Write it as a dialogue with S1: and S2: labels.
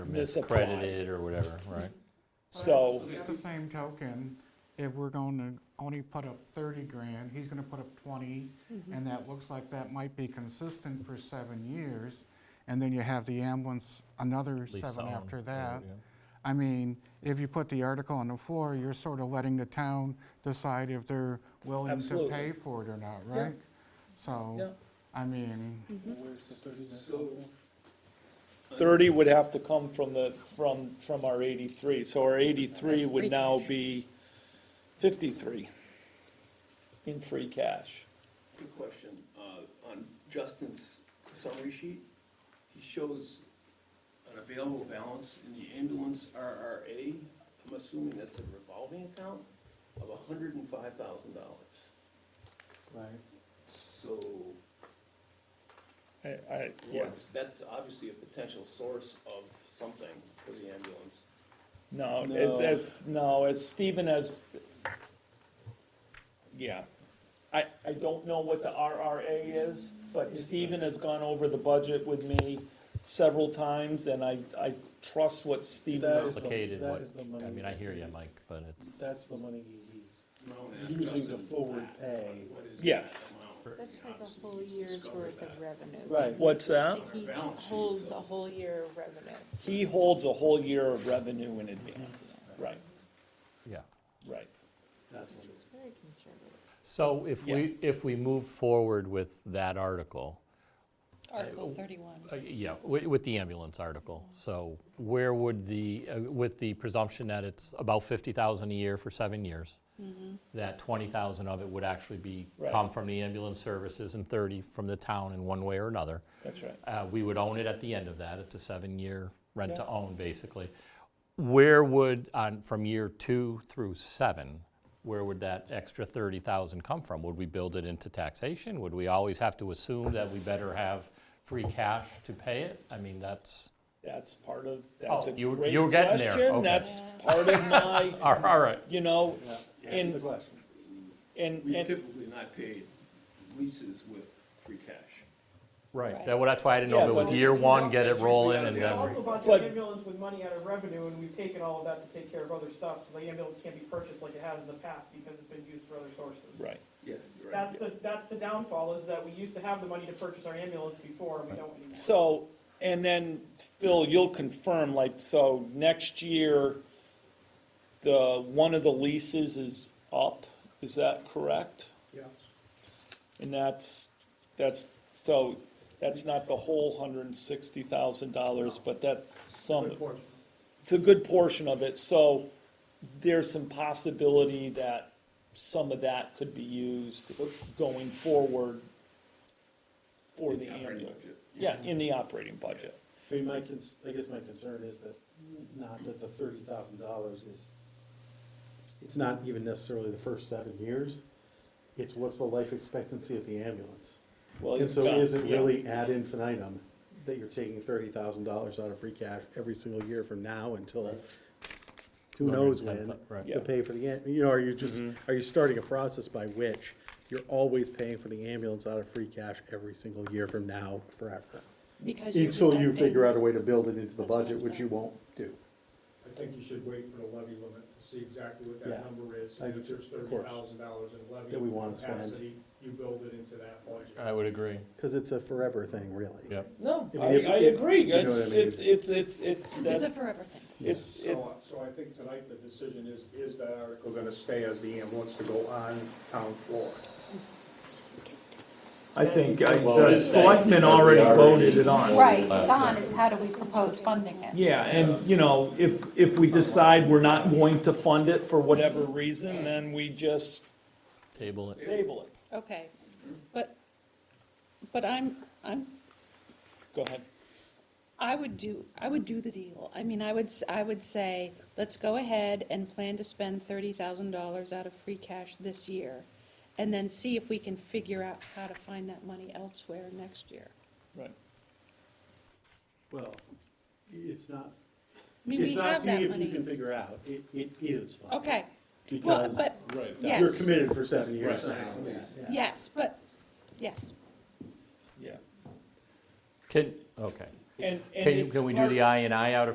S1: misapplied.
S2: Credited or whatever, right?
S1: So,
S3: At the same token, if we're going to only put up 30 grand, he's going to put up 20,
S1: Mm-hmm.
S3: and that looks like that might be consistent for seven years, and then you have the ambulance, another
S2: Lease to
S3: seven
S2: own,
S3: after
S2: or
S3: that.
S2: whatever,
S3: I mean, if you put the article on the floor, you're sort of letting the town decide if they're willing to
S1: Absolutely.
S3: pay for it or not,
S1: Yeah.
S3: right?
S1: yeah,
S3: So, I mean,
S1: thirty would have to come from the, from, from our eighty-three, so our eighty-three would now be fifty-three in free cash.
S4: Good question. Uh, On Justin's summary sheet, he shows an available balance in the ambulance RRA, I'm assuming that's a revolving account, of hundred and five thousand dollars.
S1: Right.
S4: So,
S1: I, I, yeah,
S4: what's- that's obviously a potential source of something for the ambulance.
S1: no,
S4: No.
S1: it's, as, no, as Stephen as, yeah. I, I don't know what the RRA is, but Stephen has gone over the budget with me several times, and I, I trust what Stephen
S5: That
S1: has
S5: is the-
S2: Complicated,
S5: that
S2: what,
S5: is the
S2: I
S5: money.
S2: mean, I hear you, Mike, but it's,
S5: That's the money he's
S4: No, and
S5: using to
S4: Justin,
S5: forward pay.
S4: what is
S1: Yes.
S4: that amount?
S6: That's like a
S4: Obviously,
S6: whole
S4: he's
S6: year's
S4: discovered
S6: worth of
S4: that.
S6: revenue.
S5: Right.
S1: What's that?
S6: He holds a whole year of revenue.
S1: He holds a whole year of revenue in advance, right,
S2: yeah.
S1: right.
S5: That's what it
S6: It's
S5: is.
S6: very conservative.
S2: So if we, if we move forward with that article,
S5: oh.
S7: Article 31.
S2: uh, yeah, with, with the ambulance article, so where would the, uh, with the presumption that it's about 50,000 a year for seven years,
S5: Mm-hmm.
S2: that 20,000 of it would actually be,
S1: Right.
S2: come from the ambulance services and 30 from the town in one way or another.
S1: That's right.
S2: Uh, We would own it at the end of that. It's a seven-year rent-to-own, basically. Where would, on, from year two through seven, where would that extra 30,000 come from? Would we build it into taxation? Would we always have to assume that we better have free cash to pay it? I mean, that's,
S1: That's part of, that's a
S2: Oh, you-
S1: great
S2: you were getting there,
S1: question.
S2: okay.
S1: That's part of my,
S2: all right,
S1: you know,
S5: Yeah,
S1: and,
S5: That's the question.
S1: and,
S4: We've
S1: and,
S4: typically not paid leases with free cash.
S2: right.
S7: Right.
S2: That- well, That's why I didn't know
S1: Yeah,
S2: if it was
S1: but-
S2: year one, get it
S4: It's usually
S2: rolling,
S4: gotta
S2: and
S4: be
S2: then,
S4: all-
S8: Also, a bunch of
S1: But-
S8: ambulance with money out of revenue, and we've taken all of that to take care of other stuff, so the ambulance can't be purchased like it has in the past, because it's been used for other sources.
S1: right,
S4: Yeah, you're right.
S8: That's the, that's the downfall, is that we used to have the money to purchase our ambulance before, and we don't anymore.
S1: so, and then, Phil, you'll confirm, like, so next year, the, one of the leases is up, is that correct?
S5: Yeah.
S1: And that's, that's, so, that's not the whole hundred and sixty thousand dollars, but that's some.
S5: Good portion.
S1: it's a good portion of it, so there's some possibility that some of that could be used going forward for the
S4: Operating
S1: ambulance.
S4: budget.
S1: Yeah, in the operating budget.
S5: I mean, my cons, I guess my concern is that, not that the thirty thousand dollars is, it's not even necessarily the first seven years. It's what's the life expectancy of the ambulance?
S1: Well,
S5: And
S1: it's
S5: so
S1: got-
S5: is it
S1: yeah.
S5: really ad infinitum that you're taking thirty thousand dollars out of free cash every single year from now until who knows when
S2: 110, right.
S1: Yeah. Mm-hmm.
S5: to pay for the, am- you know, are you just, are you starting a process by which you're always paying for the ambulance out of free cash every single year from now forever?
S7: Because you do
S5: Until
S7: that
S5: you
S7: thing-
S5: figure out a way to build it into the
S7: That's what
S5: budget,
S7: I'm
S5: which you
S7: saying.
S5: won't do.
S9: I think you should wait for the levy limit to see exactly what
S5: Yeah.
S9: that number is.
S5: I-
S9: And if there's
S5: of
S9: thirty
S5: course.
S9: thousand dollars in levy.
S5: That we wanna spend. Uh,
S9: capacity, You build it into that budget.
S2: I would agree,
S5: Cause it's a forever thing, really.
S2: yep.
S1: No,
S5: I
S1: I, I
S5: mean, if- if- you
S1: agree,
S5: know
S1: it's,
S5: what I mean?
S1: it's, it's, it's, it,
S7: It's a
S1: that,
S7: forever thing.
S1: it, it,
S9: So, so I think tonight the decision is, is that article gonna stay as the ambulance to go on town floor?
S10: I think I-
S2: Well,
S10: the selectmen already voted it on.
S7: Right, Don, is how do we propose funding it?
S1: yeah, and, you know, if, if we decide we're not going to fund it for whatever reason, then we just
S2: Table it.
S1: table it.
S7: Okay, but, but I'm, I'm,
S1: Go ahead.
S7: I would do, I would do the deal. I mean, I would, s- I would say, let's go ahead and plan to spend $30,000 out of free cash this year, and then see if we can figure out how to find that money elsewhere next year.
S1: Right.
S5: Well, it's not,
S7: I mean, we
S5: it's not
S7: have
S5: seeing
S7: that
S5: if you can
S7: money.
S5: figure out, it, it is. fine.
S7: Okay, well,
S5: Because
S7: but,
S5: you're
S7: yes,
S5: committed for seven years now. Yeah.
S7: yes, but, yes.
S1: Yeah.
S2: Can, okay.
S1: And, and
S2: Can, you-
S1: it's
S2: can we do
S1: part-
S2: the I and I out of